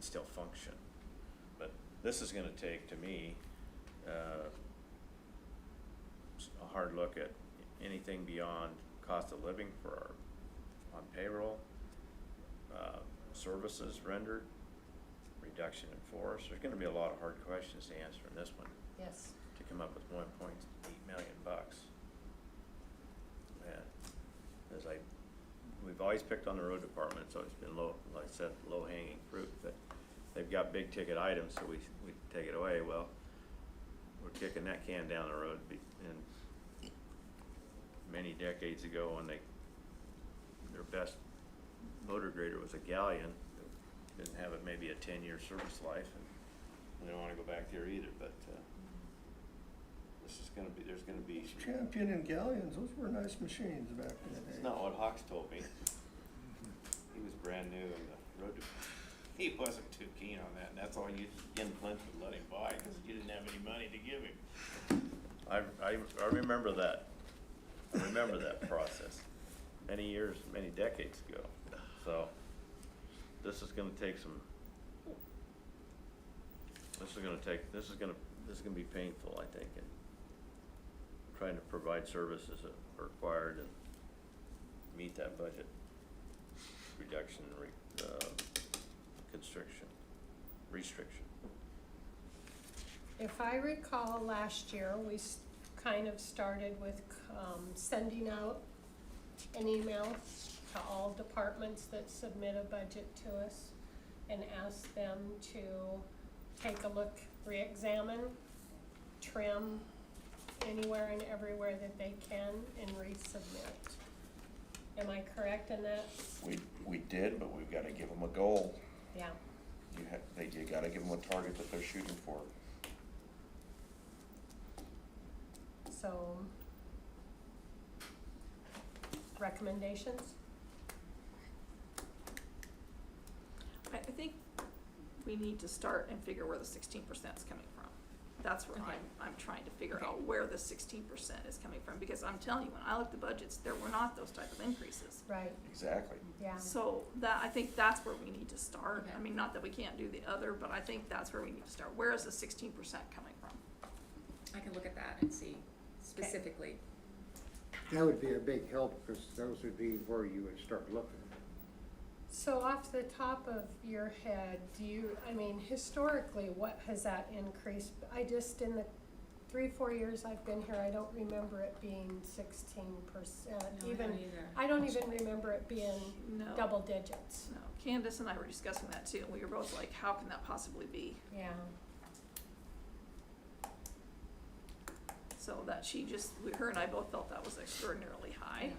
still function. But this is gonna take, to me, uh, s- a hard look at anything beyond cost of living for our, on payroll, uh, services rendered, reduction in force. There's gonna be a lot of hard questions to answer in this one Yes. to come up with one point eight million bucks. And as I, we've always picked on the road department, so it's been low, like I said, low hanging fruit, but they've got big ticket items, so we, we take it away, well, we're kicking that can down the road be- and many decades ago when they, their best motor grader was a galleon, didn't have it maybe a ten-year service life, and they don't wanna go back there either, but, uh, this is gonna be, there's gonna be, Champion and Galleons, those were nice machines back in the day. it's not what Hawks told me. He was brand new in the road, to- he wasn't too keen on that, and that's all you, Ken Flint would let him buy, cause you didn't have any money to give him. I, I, I remember that, I remember that process, many years, many decades ago, so, this is gonna take some, this is gonna take, this is gonna, this is gonna be painful, I think, and trying to provide services that are required and meet that budget reduction, re, uh, constriction, restriction. If I recall, last year, we s- kind of started with um, sending out an email to all departments that submit a budget to us and ask them to take a look, reexamine, trim anywhere and everywhere that they can and resubmit. Am I correct in that? We, we did, but we've gotta give them a goal. Yeah. You ha they, you gotta give them a target that they're shooting for. So, recommendations? I, I think we need to start and figure where the sixteen percent is coming from. That's where Okay. I'm, I'm trying to figure Okay. out where the sixteen percent is coming from, because I'm telling you, when I looked at budgets, there were not those type of increases. Right, Exactly. yeah. So that, I think that's where we need to start. I Okay. mean, not that we can't do the other, but I think that's where we need to start. Where is the sixteen percent coming from? I can look at that and see specifically. That would be a big help, because those would be where you would start looking. So off the top of your head, do you, I mean, historically, what has that increased? I just, in the three, four years I've been here, I don't remember it being sixteen percent, even, I don't even remember it being No. double digits. No, Candace and I were discussing that too, and we were both like, how can that possibly be? Yeah, So that she just, we- her and I both felt that was extraordinarily high.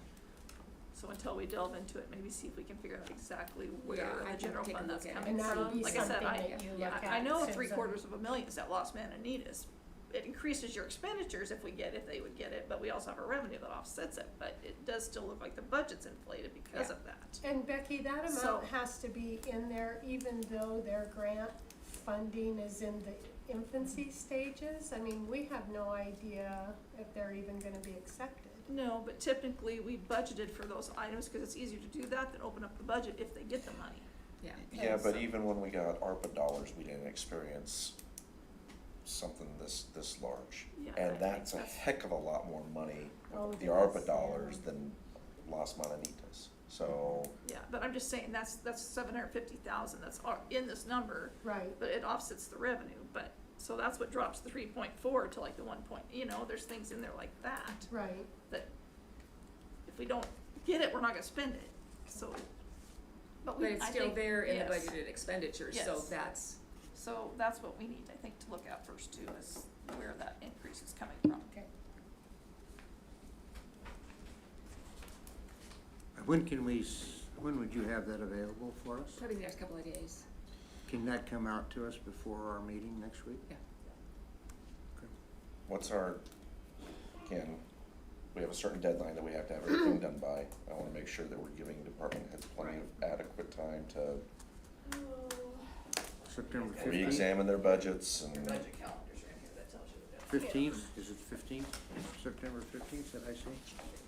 So until we delve into it, maybe see if we can figure out exactly Yeah, where the I can general take a fund look that's at it coming and mean, that would from. be Like I something said, I, that you yeah, look at. I know Susan. three quarters of a million is that lost man in need is. It increases your expenditures if we get, if they would get it, but we also have a revenue that offsets it, but it does still look like the budget's inflated because Yeah. of that. And Becky, that So- amount has to be in there even though their grant funding is in the infancy stages? I mean, we have no idea if they're even gonna be accepted. No, but typically, we budgeted for those items, cause it's easier to do that than open up the budget if they get the money. Yeah, Yeah, but so- even when we got ARPA dollars, we didn't experience something this, this large. Yeah, I And think that's a that's- heck of a lot more money, Oh, the yes, ARPA yeah. dollars than Las Mananitas. So, Yeah, but I'm just saying, that's, that's seven hundred fifty thousand, that's all in this number, Right. but it offsets the revenue, but, so that's what drops the three point four to like the one point, you know, there's things in there like that, Right, that if we don't get it, we're not gonna spend it, so. But but we, it's I still think, there in the yes. budgeted expenditures, so Yes. that's, So that's what we need, I think, to look at first too, is where that increase is coming from. okay. When can we, s- when would you have that available for us? probably the next couple of days. Can that come out to us before our meeting next week? Yeah. what's our, again, we have a certain deadline that we have to have everything done by. I wanna make sure that we're giving department heads plenty of adequate time to September fifteenth? re-examine their budgets and. calendar's right here, that tells you the Fifteenth, is it fifteenth? September fifteenth, did I say?